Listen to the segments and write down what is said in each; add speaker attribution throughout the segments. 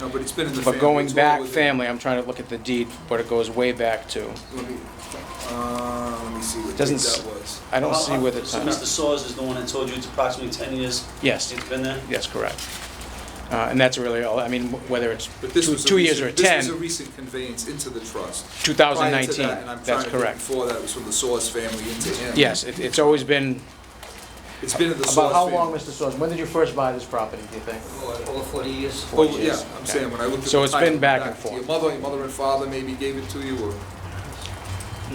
Speaker 1: No, but it's been in the family.
Speaker 2: But going
Speaker 1: It's all
Speaker 2: back,
Speaker 1: within-
Speaker 2: family, I'm trying to look at the deed, but it goes way back to,
Speaker 1: Let me, uh, let me see what date
Speaker 2: Doesn't s-
Speaker 1: that was.
Speaker 2: I don't see where the
Speaker 3: uh, So
Speaker 2: time.
Speaker 3: Mr. Soers is the one that told you it's approximately 10 years
Speaker 2: Yes,
Speaker 3: it's been there?
Speaker 2: yes, correct. Uh, And that's really all, I mean, wh- whether it's
Speaker 1: But this
Speaker 2: two
Speaker 1: was a
Speaker 2: two years or
Speaker 1: recent- This
Speaker 2: 10,
Speaker 1: was a recent conveyance into the trust. Prior to
Speaker 2: 2019,
Speaker 1: that, and I'm
Speaker 2: that's
Speaker 1: trying to think
Speaker 2: correct.
Speaker 1: Before that, it was from the Source family into him.
Speaker 2: Yes, it- it's always been,
Speaker 1: It's been in the Source
Speaker 2: about how
Speaker 1: family.
Speaker 2: long, Mr. Soers, when did you first buy this property, do you think?
Speaker 4: Over 40 years.
Speaker 2: Four
Speaker 1: Oh, yeah,
Speaker 2: years.
Speaker 1: I'm
Speaker 2: Okay.
Speaker 1: saying, when I looked at.
Speaker 2: So
Speaker 1: the
Speaker 2: it's been
Speaker 1: title,
Speaker 2: back and
Speaker 1: to
Speaker 2: forth.
Speaker 1: Your mother, your mother and father maybe gave it to you, or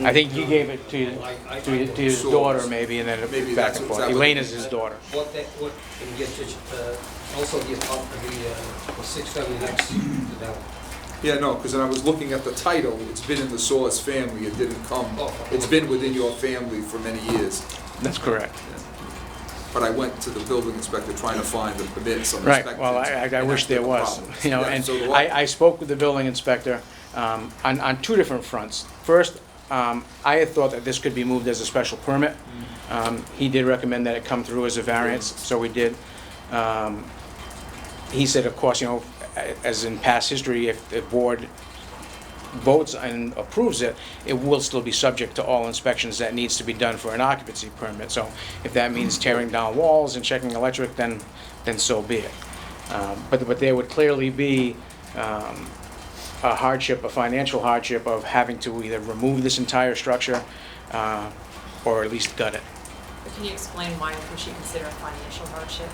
Speaker 2: I
Speaker 1: Mm,
Speaker 2: think you gave it to,
Speaker 4: I-
Speaker 2: to to his
Speaker 1: Soers.
Speaker 2: daughter, maybe, and then
Speaker 1: Maybe
Speaker 2: it back
Speaker 1: that's
Speaker 2: and
Speaker 1: what-
Speaker 2: forth.
Speaker 1: is that what-
Speaker 2: Elaine is his daughter.
Speaker 4: What that, what, and get, uh, also the apartment, the, uh, the six family next to that one.
Speaker 1: yeah, no, because when I was looking at the title, it's been in the Source family, it didn't come.
Speaker 4: Oh.
Speaker 1: It's been within your family for many years,
Speaker 2: That's correct.
Speaker 1: but I went to the building inspector trying to find the permits on
Speaker 2: Right,
Speaker 1: inspections.
Speaker 2: well, I, I- I wish there was, you know, and I, I spoke with the building inspector um, on, on two different fronts. First, um, I had thought that this could be moved as a special permit. Um, He did recommend that it come through as a variance, so we did. Um, He said, of course, you know, a- as in past history, if the board votes and approves it, it will still be subject to all inspections that needs to be done for an occupancy permit. So if that means tearing down walls and checking electric, then, then so be it. Um, But, but there would clearly be um, a hardship, a financial hardship of having to either remove this entire structure uh, or at least gut it.
Speaker 5: Can you explain why we should consider a financial hardship?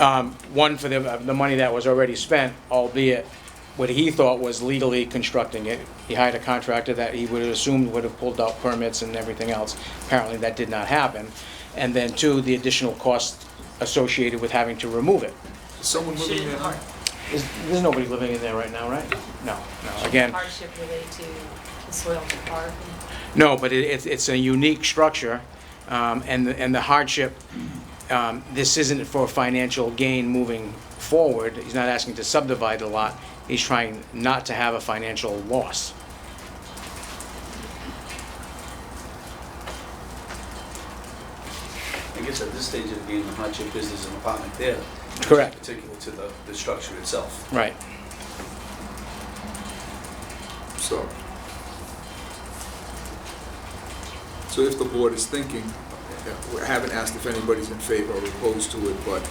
Speaker 2: Um, One, for the, the money that was already spent, albeit what he thought was legally constructing it. He hired a contractor that he would have assumed would have pulled out permits and everything else. Apparently, that did not happen. And then two, the additional cost associated with having to remove it.
Speaker 1: Someone living
Speaker 5: Shouldn't
Speaker 1: there,
Speaker 5: har-
Speaker 2: Is- There's nobody living in there right now, right? No, no. Again,
Speaker 5: hardship relate to the soil of the park? and-
Speaker 2: No, but it, it's, it's a unique structure, um, and, the- and the hardship, um, this isn't for financial gain moving forward. He's not asking to subdivide the lot. He's trying not to have a financial loss.
Speaker 3: I guess at this stage of being in the hardship business, an apartment there. which is
Speaker 2: Correct.
Speaker 3: Particular to the, the structure itself.
Speaker 2: Right.
Speaker 1: so. So if the board is thinking, I haven't asked if anybody's in favor or opposed to it, but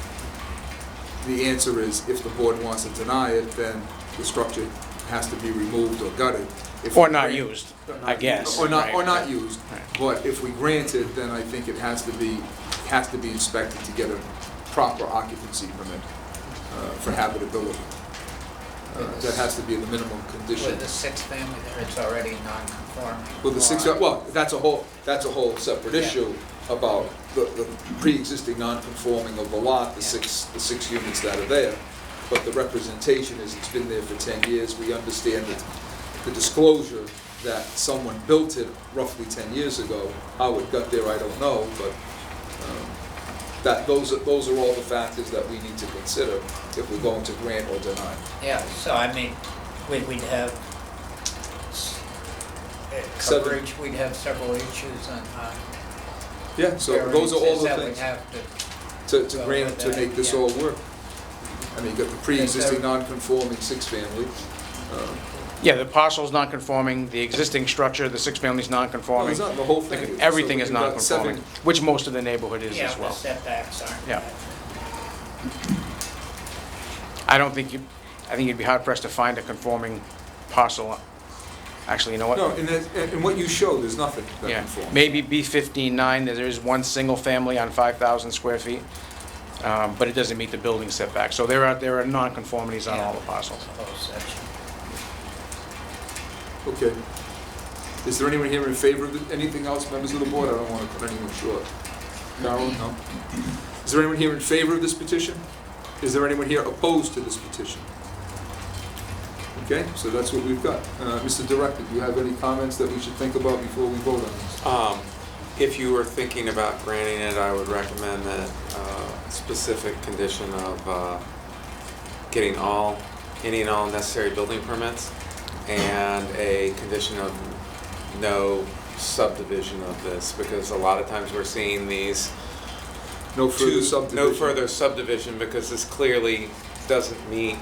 Speaker 1: the answer is if the board wants to deny it, then the structure has to be removed or gutted. If
Speaker 2: Or
Speaker 1: we
Speaker 2: not
Speaker 1: grant-
Speaker 2: used, I guess.
Speaker 1: Or not, or
Speaker 2: right.
Speaker 1: not used.
Speaker 2: Right.
Speaker 1: But if we grant it, then I think it has to be, has to be inspected to get a proper occupancy permit uh, for habitability. Uh, That has to be the minimum condition.
Speaker 6: With the sixth family there, it's already non-conforming.
Speaker 1: Well, the six,
Speaker 6: Or-
Speaker 1: well, that's a whole, that's a whole separate
Speaker 6: Yeah.
Speaker 1: issue about the, the pre-existing non-conforming of the lot, the six, the six units that are there. But the representation is it's been there for ten years, we understand it. The disclosure that someone built it roughly ten years ago, how it got there, I don't know, but, um, that, those are, those are all the factors that we need to consider if we're going to grant or deny.
Speaker 6: Yeah, so I mean, we- we'd have s- uh,
Speaker 1: Seven.
Speaker 6: coverage, we'd have several issues on on
Speaker 1: Yeah, so those are all
Speaker 6: variances
Speaker 1: the
Speaker 6: that we'd
Speaker 1: things.
Speaker 6: have to,
Speaker 1: to, to
Speaker 6: Well,
Speaker 1: grant,
Speaker 6: with
Speaker 1: to
Speaker 6: that,
Speaker 1: make this
Speaker 6: yeah.
Speaker 1: all work. I mean, you got the pre-existing non-conforming six-family. uh,
Speaker 2: Yeah, the parcel's non-conforming, the existing structure, the six-family's
Speaker 1: well,
Speaker 2: non-conforming.
Speaker 1: it's not the whole
Speaker 2: Like,
Speaker 1: thing.
Speaker 2: Everything
Speaker 1: So
Speaker 2: is
Speaker 1: you've got
Speaker 2: non-conforming,
Speaker 1: seven-
Speaker 2: which most of the neighborhood is
Speaker 6: yeah,
Speaker 2: as
Speaker 6: the
Speaker 2: well.
Speaker 6: setbacks aren't.
Speaker 2: Yeah. I don't think you, I think you'd be hard pressed to find a conforming parcel. Actually, you know what?
Speaker 1: No, and that's, and and what you showed, there's nothing that
Speaker 2: Yeah,
Speaker 1: conforms.
Speaker 2: maybe B fifteen nine, there is one single family on five thousand square feet, um, but it doesn't meet the building setback, so there are, there are non-conformities on all the parcels.
Speaker 6: The whole section.
Speaker 1: Okay. Is there anyone here in favor of it? anything else, members of the board? I don't want to cut anyone short. Carol, no? Is there anyone here in favor of this petition? Is there anyone here opposed to this petition? Okay, so that's what we've got. Uh, Mr. Director, do you have any comments that we should think about before we vote on this?
Speaker 7: Um, If you were thinking about granting it, I would recommend that uh, specific condition of uh, getting all, any and all necessary building permits and a condition of no subdivision of this, because a lot of times we're seeing these
Speaker 1: No
Speaker 7: two,
Speaker 1: further subdivision?
Speaker 7: no further subdivision, because this clearly doesn't meet